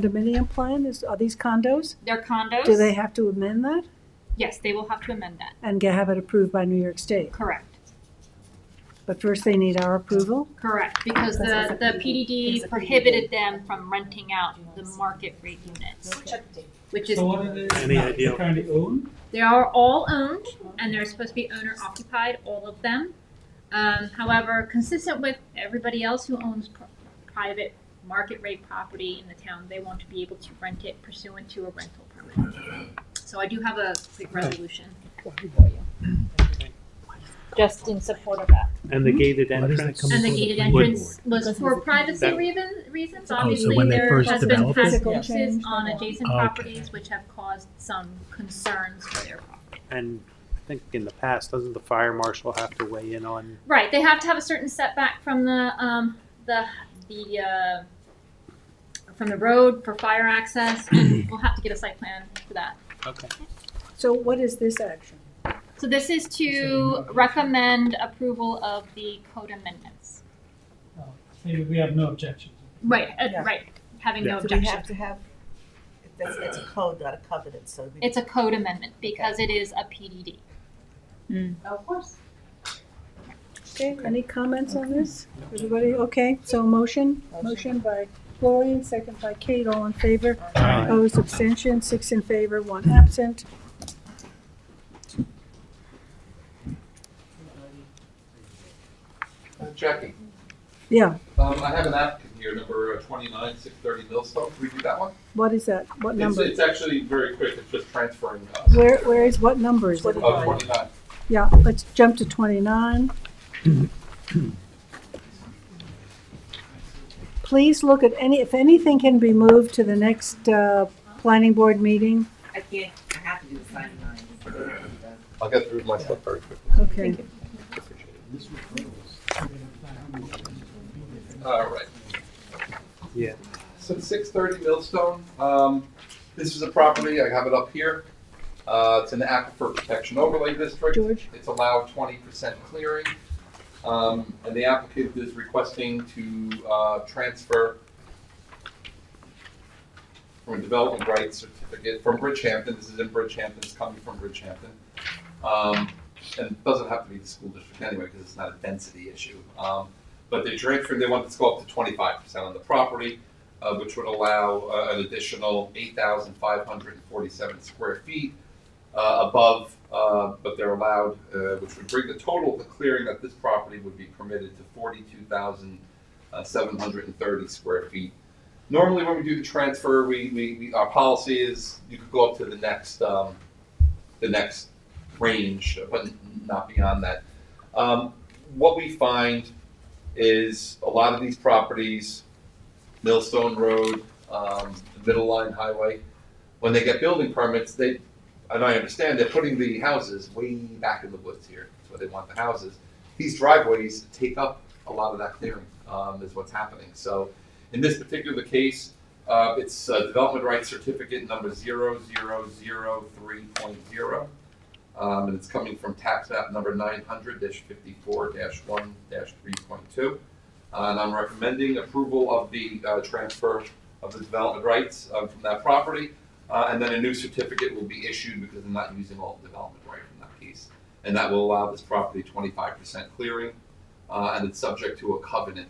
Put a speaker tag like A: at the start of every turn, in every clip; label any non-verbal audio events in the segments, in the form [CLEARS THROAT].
A: condominium plan is, are these condos?
B: They're condos.
A: Do they have to amend that
B: Yes, they will have to amend that.
A: and get, have it approved by New York State?
B: Correct.
A: But first they need our approval?
B: Correct, because the,
C: Because it's
B: the
C: a PDD.
B: PDD
C: It's a
B: prohibited them from renting out the market rate units, which is,
D: So what are they
E: Any idea?
D: currently own?
B: they are all owned and they're supposed to be owner occupied, all of them. Um, however, consistent with everybody else who owns pr- private market rate property in the town, they want to be able to rent it pursuant to a rental permit. So I do have a quick resolution for you. Just in support of that.
E: And the gated
F: Hmm? Why does that
E: entrance?
F: come
B: And the
F: before the
B: gated
F: planning board? Oh,
B: entrance was for privacy
E: That-
B: reason, reasons,
F: so
B: obviously,
F: when they
B: there
F: first
B: has been
F: developed it?
B: physical Oh,
C: Physical
B: uses
C: change.
B: on adjacent
F: Okay.
B: properties which have caused some concerns for their property.
E: And I think in the past, doesn't the fire marshal have to weigh in on?
B: Right, they have to have a certain setback from the, um, the, the, uh, from the road for fire
F: [CLEARS THROAT]
B: access, and we'll have to get a site plan for that.
E: Okay.
A: So what is this action?
B: So this is to recommend approval of the code amendments.
D: No. Maybe we have no objections.
B: Right, uh,
C: Yeah.
B: right, having no
E: Yeah.
C: Do we
B: objection.
C: have to have, that's, it's a code, not a covenant, so we.
B: It's a code amendment because it is a PDD.
C: Of course.
A: Okay, any comments on this? Everybody, okay, so motion, motion by Gloria and second by Kate, all in favor? Opposed, abstention, six in favor, one absent.
G: Jackie,
A: Yeah,
G: um, I have an applicant here, number uh, twenty-nine, six thirty Millstone, can we do that one?
A: what is that? What
G: It's,
A: number?
G: it's actually very quick, it's just transferring. uh,
A: Where, where is, what number is it?
G: Uh, twenty-nine.
A: Yeah, let's jump to twenty-nine. Please look at any, if anything can be moved to the next, uh, planning board meeting.
C: I can't, I have to do the sign line.
G: I'll get through my stuff very quickly.
A: Okay.
G: Appreciate it. All right.
E: Yeah.
G: So six thirty Millstone, um, this is a property, I have it up here. Uh, it's an aquifer protection overlay district.
A: George?
G: It's allowed twenty percent clearing. Um, and the applicant is requesting to, uh, transfer from a development rights certificate from Bridgehampton, this is in Bridgehampton, it's coming from Bridgehampton. Um, and it doesn't have to be the school district anyway, because it's not a density issue. Um, but they're transferring, they want this to go up to twenty-five percent on the property, uh, which would allow, uh, an additional eight thousand five hundred and forty-seven square feet uh, above, uh, but they're allowed, uh, which would bring the total of the clearing that this property would be permitted to forty-two thousand seven hundred and thirty square feet. Normally, when we do the transfer, we, we, we, our policy is you could go up to the next, um, the next range, but not beyond that. Um, what we find is a lot of these properties, Millstone Road, um, the Middle Line Highway, when they get building permits, they, and I understand they're putting the houses way back in the woods here, that's where they want the houses. These driveways take up a lot of that clearing, um, is what's happening. So in this particular case, uh, it's uh, development rights certificate number zero zero zero three point zero. Um, and it's coming from tax map number nine hundred fifty-four one three point two. And I'm recommending approval of the, uh, transfer of the development rights, uh, from that property. Uh, and then a new certificate will be issued because they're not using all the development right from that piece. And that will allow this property twenty-five percent clearing, uh, and it's subject to a covenant.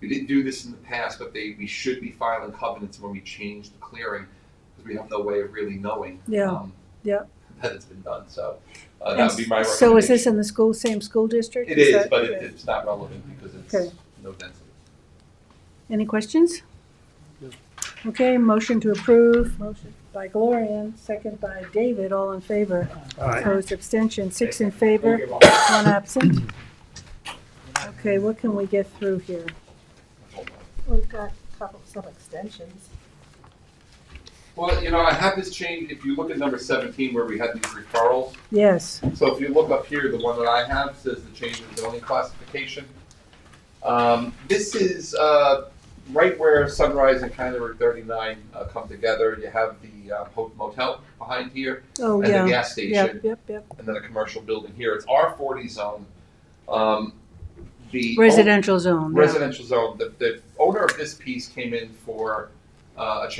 G: We didn't do this in the past, but they, we should be filing covenants when we change the clearing, because we have no way of really knowing.
A: Yeah,
G: um,
A: yeah.
G: [LAUGHS] That it's been done, so, uh, that would be my recommendation.
A: So is this in the school, same school district?
G: It is,
A: that-
G: but it, it's not relevant because
A: Okay.
G: it's no density.
A: Any questions? Okay, motion to approve. Motion. By Gloria, second by David, all in favor. Opposed, abstention, six in favor, one absent. Okay, what can we get through here?
G: Hold on.
C: We've got a couple, some extensions.
G: Well, you know, I have this change, if you look at number seventeen where we had these referrals,
A: Yes,
G: So if you look up here, the one that I have says the change in zoning classification. Um, this is, uh, right where Sunrise and County Road thirty-nine, uh, come together. You have the uh, Hope Motel behind here
A: oh,
G: and the
A: yeah,
G: gas station
A: yep, yep, yep.
G: and then a commercial building here. It's R forty zone. Um, the.
A: Residential zone, yeah.
G: Residential zone. The, the owner of this piece came in for, uh, a change